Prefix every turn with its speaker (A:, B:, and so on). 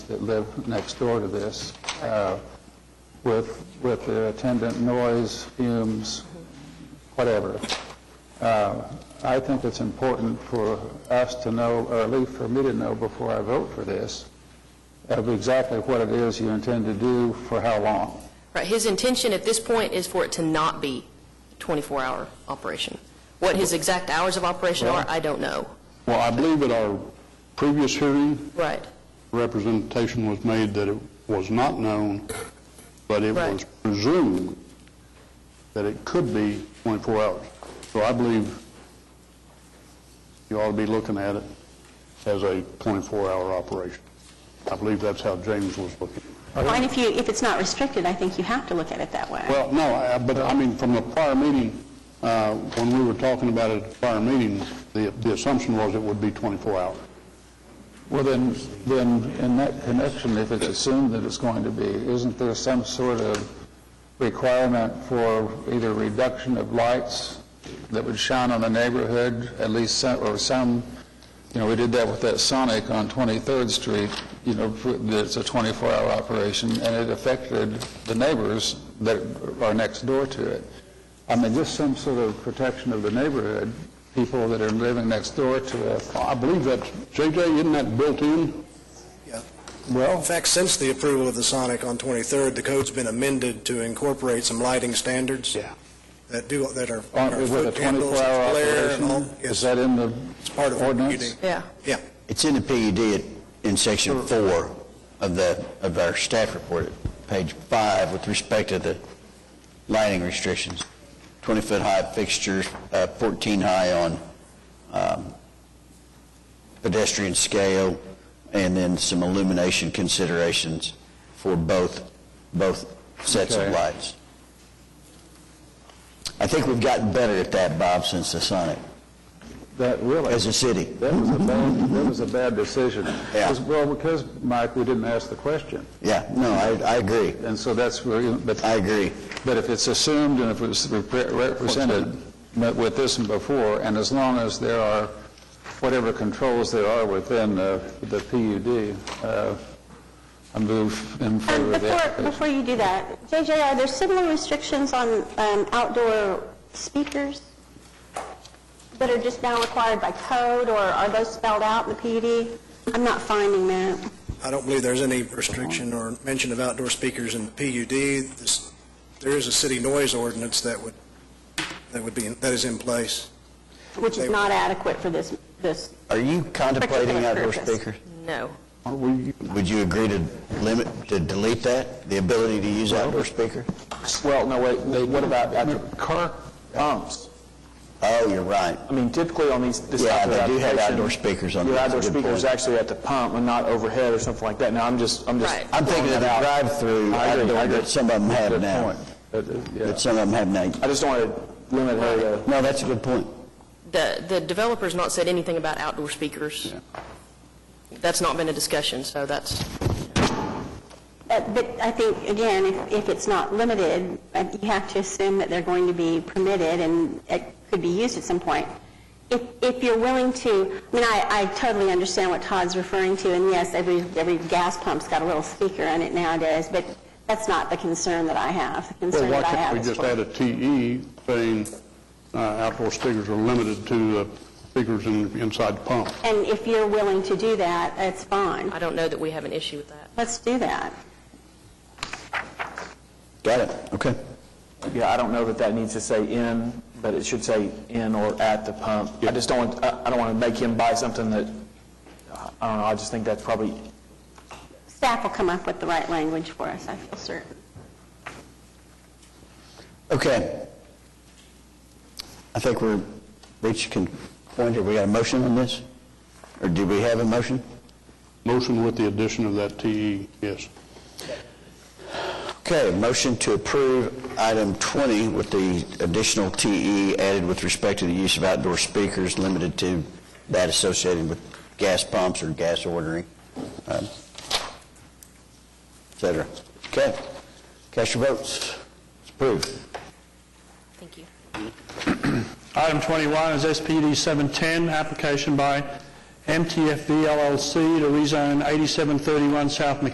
A: that live next door to this, uh, with, with the attendant noise, fumes, whatever. Uh, I think it's important for us to know, or at least for me to know before I vote for this, of exactly what it is you intend to do for how long.
B: Right, his intention at this point is for it to not be 24-hour operation. What his exact hours of operation are, I don't know.
C: Well, I believe at our previous hearing,
B: Right,
C: representation was made that it was not known, but it
B: Right.
C: was presumed that it could be 24 hours. So I believe you ought to be looking at it as a 24-hour operation. I believe that's how James was looking.
D: Well, and if you, if it's not restricted, I think you have to look at it that way.
C: Well, no, I- but I mean, from the prior meeting, uh, when we were talking about it at the prior meeting, the the assumption was it would be 24 hours.
A: Well, then, then in that connection, if it's assumed that it's going to be, isn't there some sort of requirement for either reduction of lights that would shine on the neighborhood, at least some, or some, you know, we did that with that Sonic on 23rd Street, you know, for- that's a 24-hour operation, and it affected the neighbors that are next door to it. I mean, just some sort of protection of the neighborhood, people that are living next door to it.
C: I believe that's, JJ, isn't that built in?
E: In fact, since the approval of the Sonic on 23rd, the code's been amended to incorporate some lighting standards
C: Yeah.
E: that do, that are
A: On-
E: are
A: With a
E: foot candles,
A: 24-hour
E: glare, and all.
A: operation? Is
E: Yes,
A: that in the
E: part of our
A: ordinance?
B: yeah.
E: yeah.
F: It's in the PUD at- in section four of the, of our staff report, page five, with respect to the lighting restrictions. 20-foot high fixtures, uh, 14 high on um, pedestrian scale, and then some illumination considerations for both, both sets of
A: Okay.
F: lights. I think we've gotten better at that, Bob, since the Sonic,
A: That really,
F: as a city.
A: that was a bad, that was a bad decision.
F: Yeah.
A: 'Cause- Well, because, Mike, we didn't ask the question,
F: Yeah, no, I, I agree.
A: and so that's where, you- but,
F: I agree.
A: but if it's assumed and if it's repre- represented met with this and before, and as long as there are whatever controls there are within the the PUD, uh, I move in
D: Um,
A: favor of the
D: Before,
A: application.
D: before you do that, JJ, are there similar restrictions on um, outdoor speakers that are just now required by code, or are those spelled out in the PUD? I'm not finding that.
E: I don't believe there's any restriction or mention of outdoor speakers in PUD. This- There is a city noise ordinance that would, that would be, in- that is in place.
D: Which is not adequate for this, this,
F: Are you contemplating outdoor
D: Particular
F: speakers?
B: No.
C: Aren't we,
F: Would you agree to limit, to delete that, the ability to use outdoor speaker?
G: Well, no, wait, they- what about, I
A: Car pumps.
F: Oh, you're right.
G: mean, typically on these, this
F: Yeah,
G: type of
F: they do have
G: application,
F: outdoor speakers on
G: Your
F: these,
G: outdoor
F: good
G: speakers
F: point.
G: actually at the pump and not overhead or something like that. Now, I'm just, I'm just.
B: Right.
F: I'm thinking of the
G: throwing that out.
F: drive-through
G: I agree, I
F: outdoor
G: agree.
F: that some of them have
A: Good
F: now.
A: point. But, uh, yeah.
F: That some of them have now.
G: I just don't want to limit her to.
F: No, that's a good point.
B: The the developer's not said anything about outdoor speakers. That's not been a discussion, so that's,
D: uh, but I think, again, if, if it's not limited, uh, you have to assume that they're going to be permitted and it could be used at some point. If, if you're willing to, I mean, I, I totally understand what Todd's referring to, and yes, every, every gas pump's got a little speaker in it nowadays, but that's not the concern that I have. The concern
C: well, why
D: that I
C: can't
D: have
C: we
D: is
C: just
D: for-
C: add a TE saying uh, outdoor speakers are limited to uh, speakers in- inside the pump?
D: And if you're willing to do that, that's fine.
B: I don't know that we have an issue with that.
D: Let's do that.
F: Got it, okay.
G: Yeah, I don't know that that needs to say in, but it should say in or at the pump. I just don't, want- I I don't want to make him buy something that, I don't know, I just think that's probably,
D: Staff will come up with the right language for us, I feel certain.
F: Okay. I think we're reached a point, have we got a motion on this? Or do we have a motion?
C: Motion with the addition of that TE, yes.
F: Okay, motion to approve item 20 with the additional TE added with respect to the use of outdoor speakers limited to that associated with gas pumps or gas ordering, um, et cetera. Okay, cast your votes. It's approved.
B: Thank you.
H: Item 21 is SPD 710, application by MTFB LLC to rezone 8731 South McKinney